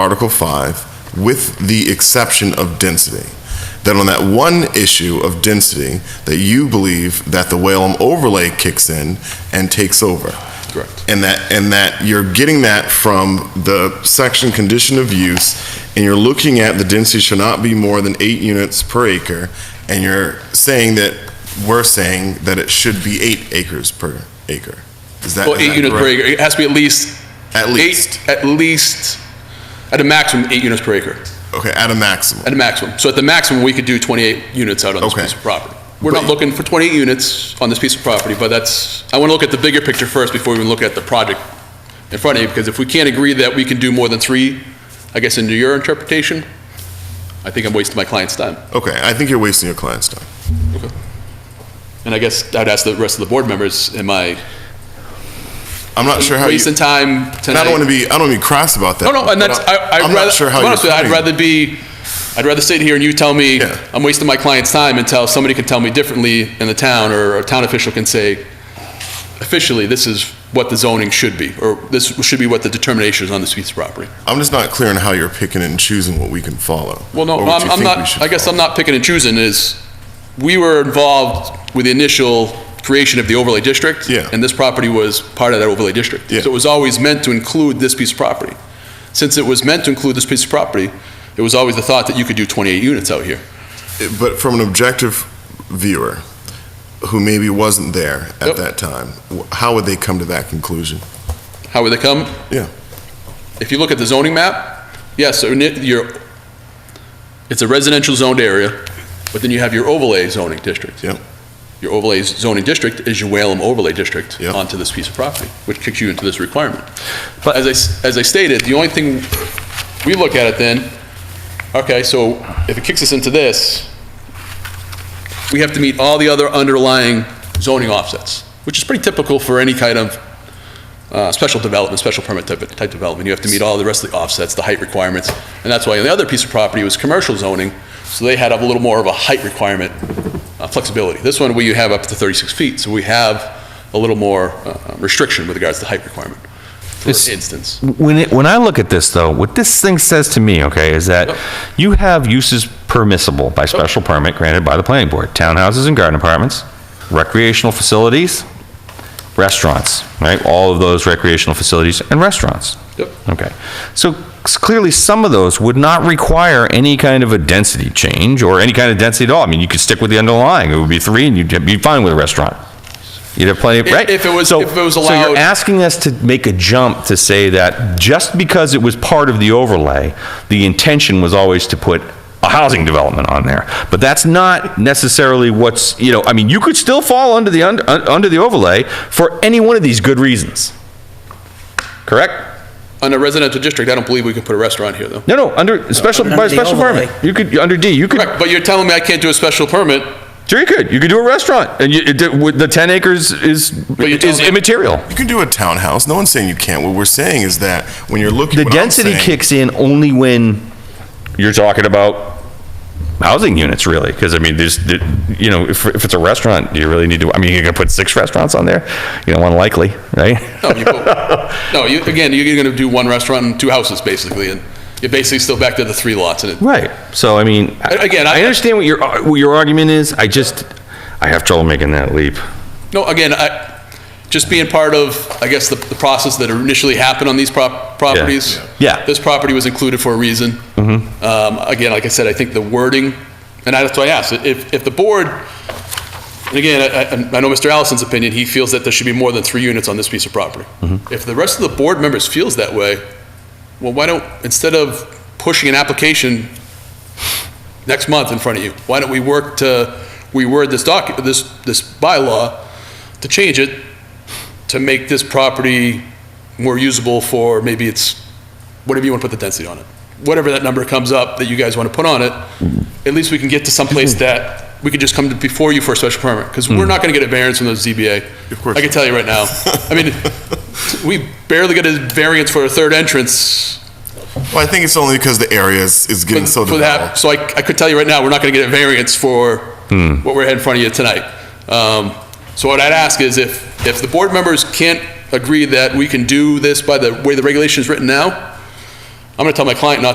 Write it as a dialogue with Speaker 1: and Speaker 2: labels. Speaker 1: Article 5, with the exception of density. Then on that one issue of density, that you believe that the Whalum overlay kicks in and takes over.
Speaker 2: Correct.
Speaker 1: And that, and that you're getting that from the section condition of use, and you're looking at the density should not be more than eight units per acre, and you're saying that, we're saying that it should be eight acres per acre. Is that?
Speaker 2: Well,
Speaker 1: is
Speaker 2: eight
Speaker 1: that
Speaker 2: units per
Speaker 1: correct?
Speaker 2: acre, it has to be at least.
Speaker 1: At
Speaker 2: eight-
Speaker 1: least.
Speaker 2: At least, at a maximum, eight units per acre,
Speaker 1: Okay, at a maximum.
Speaker 2: at a maximum. So at the maximum, we could do 28 units out on this
Speaker 1: Okay.
Speaker 2: piece of property. We're not
Speaker 1: But-
Speaker 2: looking for 28 units on this piece of property, but that's, I want to look at the bigger picture first before we even look at the project in front of you, because if we can't agree that we can do more than three, I guess into your interpretation, I think I'm wasting my client's time.
Speaker 1: Okay, I think you're wasting your client's time.
Speaker 2: And I guess I'd ask the rest of the board members, am I
Speaker 1: I'm not sure how you.
Speaker 2: wasting time
Speaker 1: And
Speaker 2: tonight?
Speaker 1: I don't want to be. I don't want to be crass about that.
Speaker 2: Oh, No, no, and
Speaker 1: but
Speaker 2: that's,
Speaker 1: I,
Speaker 2: I, I'd
Speaker 1: am
Speaker 2: rather.
Speaker 1: not sure how you're.
Speaker 2: honestly, I'd
Speaker 1: putting
Speaker 2: rather be, I'd rather sit here and you tell me,
Speaker 1: Yeah.
Speaker 2: I'm wasting my client's time until somebody can tell me differently in the town, or a town official can say, officially, this is what the zoning should be, or this should be what the determination is on this piece of property.
Speaker 1: it. I'm just not clear on how you're picking and choosing what we can follow.
Speaker 2: Well, no,
Speaker 1: or what
Speaker 2: I'm,
Speaker 1: you
Speaker 2: I'm
Speaker 1: think we
Speaker 2: not,
Speaker 1: should
Speaker 2: I guess
Speaker 1: follow.
Speaker 2: I'm not picking and choosing is, we were involved with the initial creation of the overlay district.
Speaker 1: Yeah.
Speaker 2: And this property was part of that overlay district.
Speaker 1: Yeah.
Speaker 2: So it was always meant to include this piece of property. Since it was meant to include this piece of property, it was always the thought that you could do 28 units out here.
Speaker 1: It- But from an objective viewer, who maybe wasn't there at
Speaker 2: Yep.
Speaker 1: that time, wh- how would they come to that conclusion?
Speaker 2: How would they come?
Speaker 1: Yeah.
Speaker 2: If you look at the zoning map, yes, so ni- your, it's a residential zoned area, but then you have your overlay zoning district.
Speaker 1: Yep.
Speaker 2: Your overlay zoning district is your Whalum overlay district
Speaker 1: Yep.
Speaker 2: onto this piece of property, which kicks you into this requirement. But as I, s- as I stated, the only thing we look at it then, okay, so if it kicks us into this, we have to meet all the other underlying zoning offsets, which is pretty typical for any kind of uh, special development, special permit type, type development. You have to meet all the rest of the offsets, the height requirements. And that's why on the other piece of property was commercial zoning, so they had a little more of a height requirement, uh, flexibility. This one, we have up to 36 feet, so we have a little more uh, restriction with regards to height requirement, for
Speaker 3: This-
Speaker 2: instance.
Speaker 3: When, it, when I look at this, though, what this thing says to me, okay, is that
Speaker 2: Yep.
Speaker 3: you have uses permissible by special permit granted by the planning board. Townhouses and garden apartments, recreational facilities, restaurants, right? All of those recreational facilities and restaurants.
Speaker 2: Yep.
Speaker 3: Okay. So s- clearly, some of those would not require any kind of a density change or any kind of density at all. I mean, you could stick with the underlying. It would be three, and you'd be fine with a restaurant. You'd have plenty of,
Speaker 2: If-
Speaker 3: right?
Speaker 2: if it was-
Speaker 3: So-
Speaker 2: if it was
Speaker 3: So
Speaker 2: allowed-
Speaker 3: you're asking us to make a jump to say that just because it was part of the overlay, the intention was always to put a housing development on there. But that's not necessarily what's, you know, I mean, you could still fall under the, un- un- under the overlay for any one of these good reasons. Correct?
Speaker 2: On a residential district, I don't believe we can put a restaurant here, though.
Speaker 3: No, no, under, special,
Speaker 4: Under
Speaker 3: by
Speaker 4: the
Speaker 3: special
Speaker 4: overlay.
Speaker 3: permit. You could, under D, you could,
Speaker 2: Correct, but you're telling me I can't do a special permit,
Speaker 3: sure you could, you could do a restaurant. And you, it- with the 10 acres is,
Speaker 2: you're telling
Speaker 3: is
Speaker 2: me-
Speaker 3: immaterial.
Speaker 1: You can do a townhouse. No one's saying you can't. What we're saying is that when you're looking,
Speaker 3: The
Speaker 1: what I'm
Speaker 3: density
Speaker 1: saying-
Speaker 3: kicks in only when you're talking about housing units, really, because I mean, there's, there- you know, if, if it's a restaurant, do you really need to, I mean, you're gonna put six restaurants on there? You know, unlikely, right?
Speaker 2: No, you both. No, you, again, you're going to do one restaurant and two houses, basically, and you're basically still back to the three lots, and it,
Speaker 3: Right, so I mean,
Speaker 2: A- again,
Speaker 3: again,
Speaker 2: I-
Speaker 3: I understand what your, what your argument is, I just, I have trouble making that leap.
Speaker 2: no, again, I, just being part of, I guess, the, the process that initially happened on these prop, properties.
Speaker 3: Yeah. Yeah. Mm-hmm.
Speaker 2: This property was included for a reason. Um, again, like I said, I think the wording, and that's why I asked, if, if the board, and again, I, I- I know Mr. Allison's opinion, he feels that there should be more than three units on this piece of property.
Speaker 3: Mm-hmm.
Speaker 2: If the rest of the board members feels that way, well, why don't, instead of pushing an application next month in front of you, why don't we work to, we word this doc, this, this bylaw to change it to make this property more usable for, maybe it's, whatever you want to put the density on it. Whatever that number comes up that you guys want to put on it, at least we can get to someplace that we could just come to before you for a special permit, because we're not going to get a variance from the ZBA.
Speaker 1: Of course.
Speaker 2: I can tell you right now. I mean, we barely get a variance for a third entrance
Speaker 1: Well, I think it's only because the area is, is getting so
Speaker 2: for that.
Speaker 1: developed. Hmm.
Speaker 2: So I, I could tell you right now, we're not going to get a variance for what we're had in front of you tonight. Um, So what I'd ask is if, if the board members can't agree that we can do this by the way the regulation is written now, I'm gonna tell my client not